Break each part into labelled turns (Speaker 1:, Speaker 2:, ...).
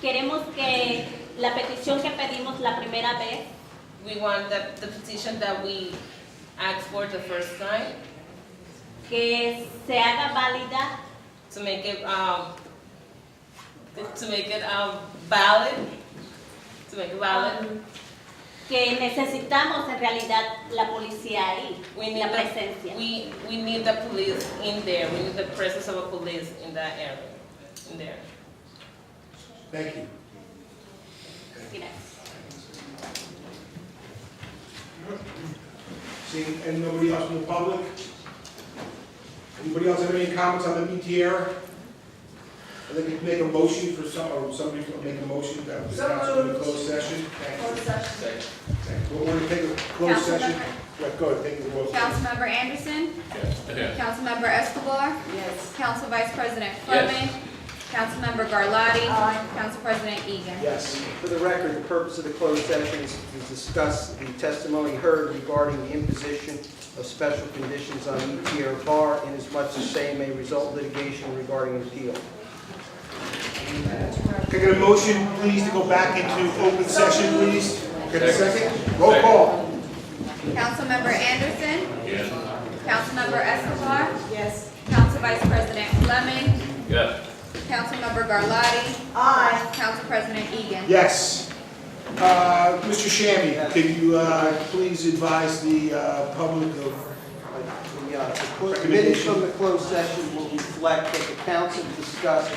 Speaker 1: queremos que la petición que pedimos la primera vez
Speaker 2: We want that the petition that we asked for the first time
Speaker 1: que se haga válida
Speaker 2: to make it, um, to make it, um, valid, to make it
Speaker 1: Um,
Speaker 2: valid.
Speaker 1: que necesitamos en realidad la policía ahí,
Speaker 2: We need
Speaker 1: la
Speaker 2: the,
Speaker 1: presencia.
Speaker 2: we, we need the police in there, we need the presence of a police in that area, in there.
Speaker 3: Thank you.
Speaker 1: Gracias.
Speaker 3: Seeing, and nobody else from the public? Anybody else have any comments on the BTR? I think we can make a motion for some, or somebody to make a motion that the
Speaker 4: So
Speaker 3: council in a
Speaker 4: moved.
Speaker 3: closed session.
Speaker 4: Closed
Speaker 3: Thank you.
Speaker 4: session.
Speaker 3: Thank you. We're going to take a closed session. Right, go ahead, take the vote.
Speaker 5: Councilmember Anderson. Councilmember Escobar.
Speaker 4: Yes.
Speaker 5: Council Vice President Fleming. Councilmember Garlotti. Council President Egan.
Speaker 3: Yes.
Speaker 6: For the record, the purpose of the closed session is to discuss the testimony heard regarding the imposition of special conditions on ETR bar inasmuch as same may result in litigation regarding appeal.
Speaker 3: Can I get a motion, please, to go back into open session, please? Get a second? Roll call.
Speaker 5: Councilmember Anderson.
Speaker 7: Yes.
Speaker 5: Councilmember Escobar.
Speaker 4: Yes.
Speaker 5: Council Vice President Fleming.
Speaker 7: Yes.
Speaker 5: Councilmember Garlotti.
Speaker 4: Aye.
Speaker 5: Council President Egan.
Speaker 3: Yes. Uh, Mr. Shammy, can you uh, please advise the uh, public of
Speaker 6: The uh, the clo- the minutes from the closed session will reflect that the council discussed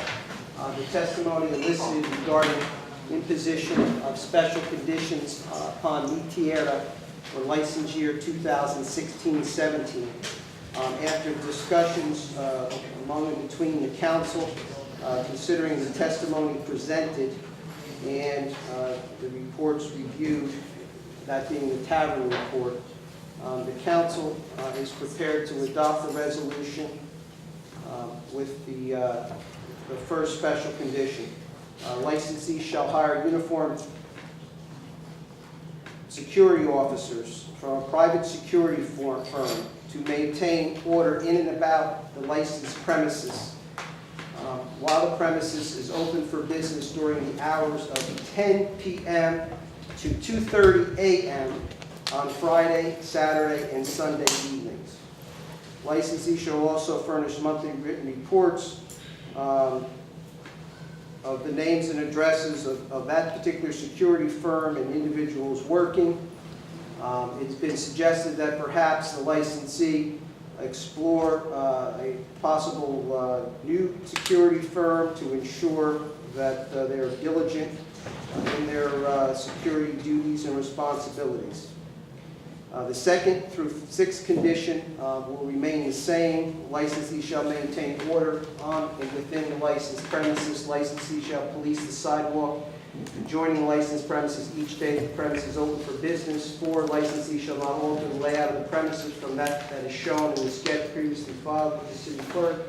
Speaker 6: uh, the testimony elicited regarding imposition of special conditions uh, upon ETR for license year 2016-17. Um, After discussions uh, among and between the council, uh, considering the testimony presented and uh, the reports reviewed, that being the tavern report, um, The council uh, is prepared to adopt the resolution um, with the, uh, the first special condition. Uh, Licensees shall hire uniformed security officers from a private security for- firm to maintain order in and about the licensed premises um, while the premises is open for business during the hours of 10 PM to 2:30 a.m. on Friday, Saturday, and Sunday evenings. Licensee shall also furnish monthly written reports um, of the names and addresses of of that particular security firm and individuals working. Um, It's been suggested that perhaps the licensee explore uh, a possible uh, new security firm to ensure that uh, they're diligent in their uh, security duties and responsibilities. Uh, The second through sixth condition uh, will remain the same. Licensee shall maintain order on and within the licensed premises. Licensee shall police the sidewalk adjoining licensed premises each day the premise is open for business. Four, licensee shall not alter the layout of the premises from that that is shown in the sketch previously filed with the city clerk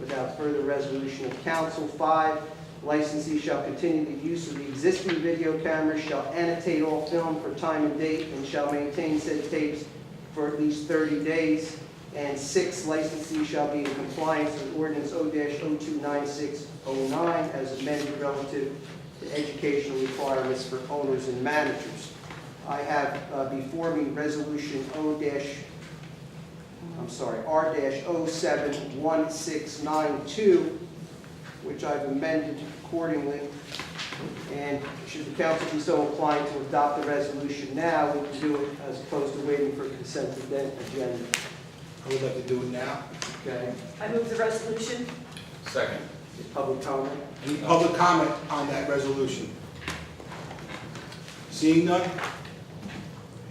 Speaker 6: without further resolution of council. Five, licensee shall continue the use of the existing video cameras, shall annotate all film for time and date, and shall maintain said tapes for at least 30 days. And six, licensee shall be in compliance with ordinance O-029609 as amended relative to educational requirements for owners and managers. I have uh, before me Resolution O dash I'm sorry, R-071692, which I've amended accordingly. And should the council be so inclined to adopt the resolution now, we can do it as opposed to waiting for consent agenda.
Speaker 3: I would like to do it now.
Speaker 6: Okay?
Speaker 4: I move the resolution.
Speaker 7: Second.
Speaker 6: Is Public comment?
Speaker 3: Any public comment on that resolution? Seeing none?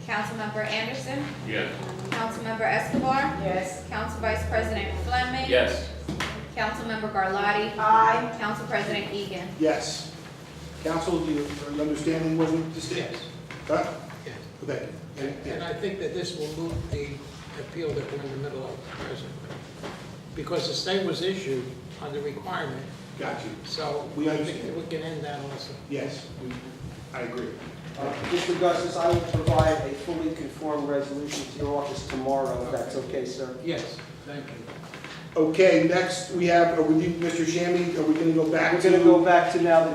Speaker 5: Councilmember Anderson.
Speaker 7: Yes.
Speaker 5: Councilmember Escobar.
Speaker 4: Yes.
Speaker 5: Council Vice President Fleming.
Speaker 7: Yes.
Speaker 5: Councilmember Garlotti.
Speaker 4: Aye.
Speaker 5: Council President Egan.
Speaker 3: Yes. Council, do you, are you understanding what we just did?
Speaker 8: Yes,
Speaker 3: Huh?
Speaker 8: yes.
Speaker 3: Okay.
Speaker 8: And and I think that this will move the appeal that we're in the middle of presently. Because the stay was issued on the requirement,
Speaker 3: Got you.
Speaker 8: so
Speaker 3: We
Speaker 8: I think
Speaker 3: understand.
Speaker 8: that we can end that also.
Speaker 3: Yes, we- I agree.
Speaker 6: Uh, Mr. Gussis, I will provide a fully conformed resolution to your office tomorrow, if that's okay, sir.
Speaker 8: Yes, thank you.
Speaker 3: Okay, next, we have, are we, Mr. Shammy, are we gonna go back
Speaker 6: We're
Speaker 3: to?
Speaker 6: going to go back to now the